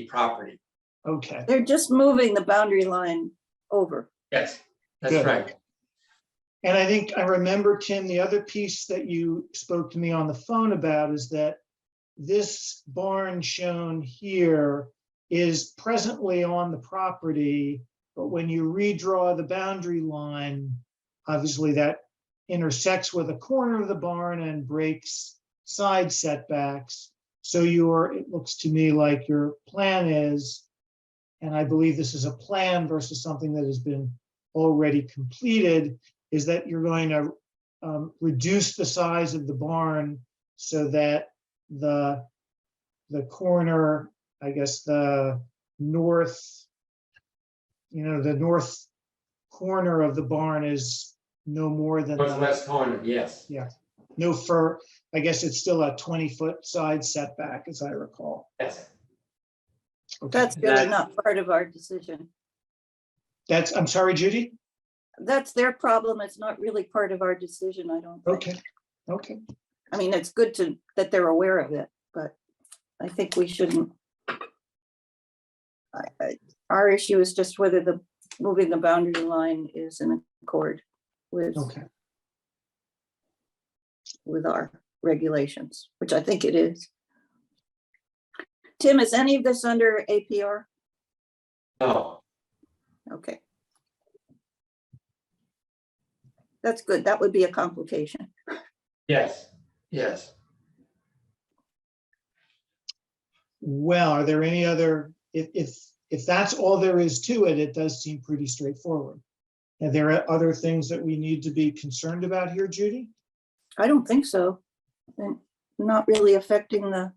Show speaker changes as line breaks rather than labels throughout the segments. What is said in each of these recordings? the property.
Okay,
They're just moving the boundary line over.
Yes, that's
Good.
right.
and I think I remember, Tim, the other piece that you spoke to me on the phone about is that this barn shown here is presently on the property, but when you redraw the boundary line, obviously that intersects with a corner of the barn and breaks side setbacks. So your, it looks to me like your plan is, and I believe this is a plan versus something that has been already completed, is that you're going to um, reduce the size of the barn so that the, the corner, I guess, the north, you know, the north corner of the barn is no more than. the-
Northwest corner, yes.
no fur, I guess it's still a twenty-foot side setback, as I recall.
Yes.
Okay.
That's really not part of our decision.
That's, I'm sorry, Judy?
That's their problem. It's not really part of our decision, I don't think.
Okay, okay,
I mean, it's good to, that they're aware of it, but I think we shouldn't. I, I, our issue is just whether the, moving the boundary line is in accord with,
okay.
with our regulations, which I think it is. Tim, is any of this under APR?
No,
Okay. That's good. That would be a complication.
yes, yes.
Well, are there any other, if, if, if that's all there is to it, it does seem pretty straightforward. Are there other things that we need to be concerned about here, Judy?
I don't think so. And not really affecting the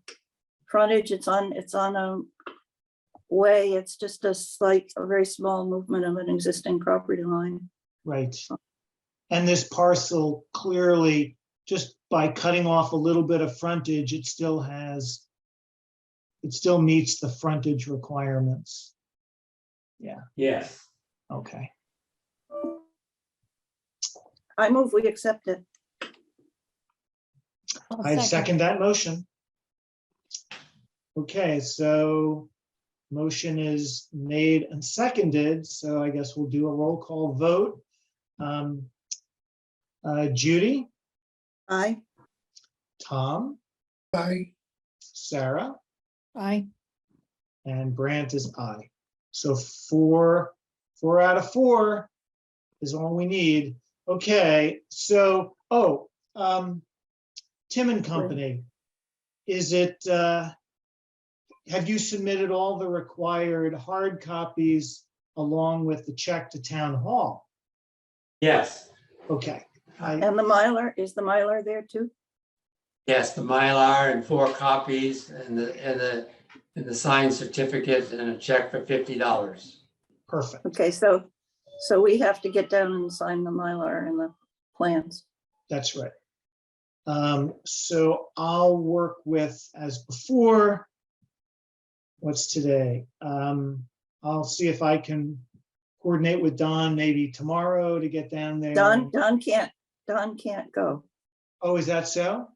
frontage. It's on, it's on a way. It's just a slight, a very small movement of an existing property line.
Right. And this parcel clearly, just by cutting off a little bit of frontage, it still has, it still meets the frontage requirements.
Yes.
Okay,
I move we accept it.
I second that motion. Okay, so motion is made and seconded, so I guess we'll do a roll call vote. Um, uh, Judy,
Aye.
Tom,
Aye.
Sarah,
Aye.
and Brandt is aye. So four, four out of four is all we need. Okay, so, oh, um, Tim and Company, is it, uh, have you submitted all the required hard copies along with the check to town hall?
Yes,
Okay, I,
And the Mylar, is the Mylar there too?
yes, the Mylar and four copies and the, and the, and the signed certificate and a check for fifty dollars.
perfect.
Okay, so, so we have to get down and sign the Mylar and the plans.
That's right. Um, so I'll work with as before. What's today? Um, I'll see if I can coordinate with Don maybe tomorrow to get down there.
Don, Don can't, Don can't go.
Oh, is that so?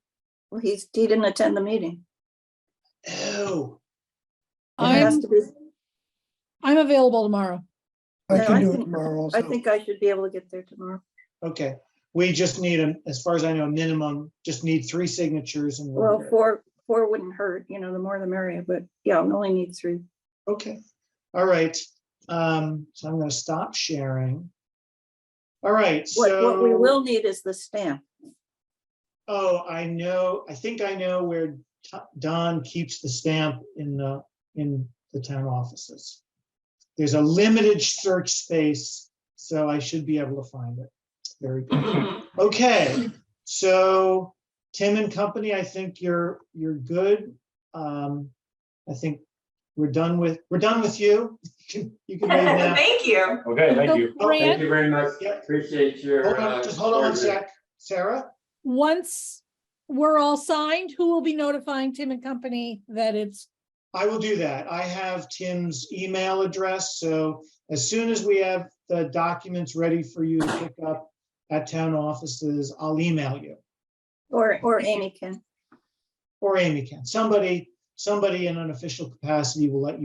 Well, he's, he didn't attend the meeting.
Oh,
It has
I'm,
to be,
I'm available tomorrow.
I
No, I
can do it
think-
tomorrow also.
I think I should be able to get there tomorrow.
okay. We just need, a- as far as I know, minimum, just need three signatures and. we're
Well,
good.
four, four wouldn't hurt, you know, the more the merrier, but yeah, we only need three.
Okay, all right. Um, so I'm gonna stop sharing. All right,
What,
so.
what we will need is the stamp.
Oh, I know, I think I know where To- Don keeps the stamp in the, in the town offices. There's a limited search space, so I should be able to find it. Very good. Okay, so Tim and company, I think you're, you're good. Um, I think we're done with, we're done with you. You can you can leave now.
Thank you.
Okay,
So,
Thank
Grant,
you very much.
Yep.
Appreciate your.
Hold on,
uh,
just hold on one
service.
sec. Sarah,
once we're all signed, who will be notifying Tim and Company that it's,
I will do that. I have Tim's email address, so as soon as we have the documents ready for you to pick up at town offices, I'll email you,
Or, or Amy can.
or Amy can. Somebody, somebody in an official capacity will let you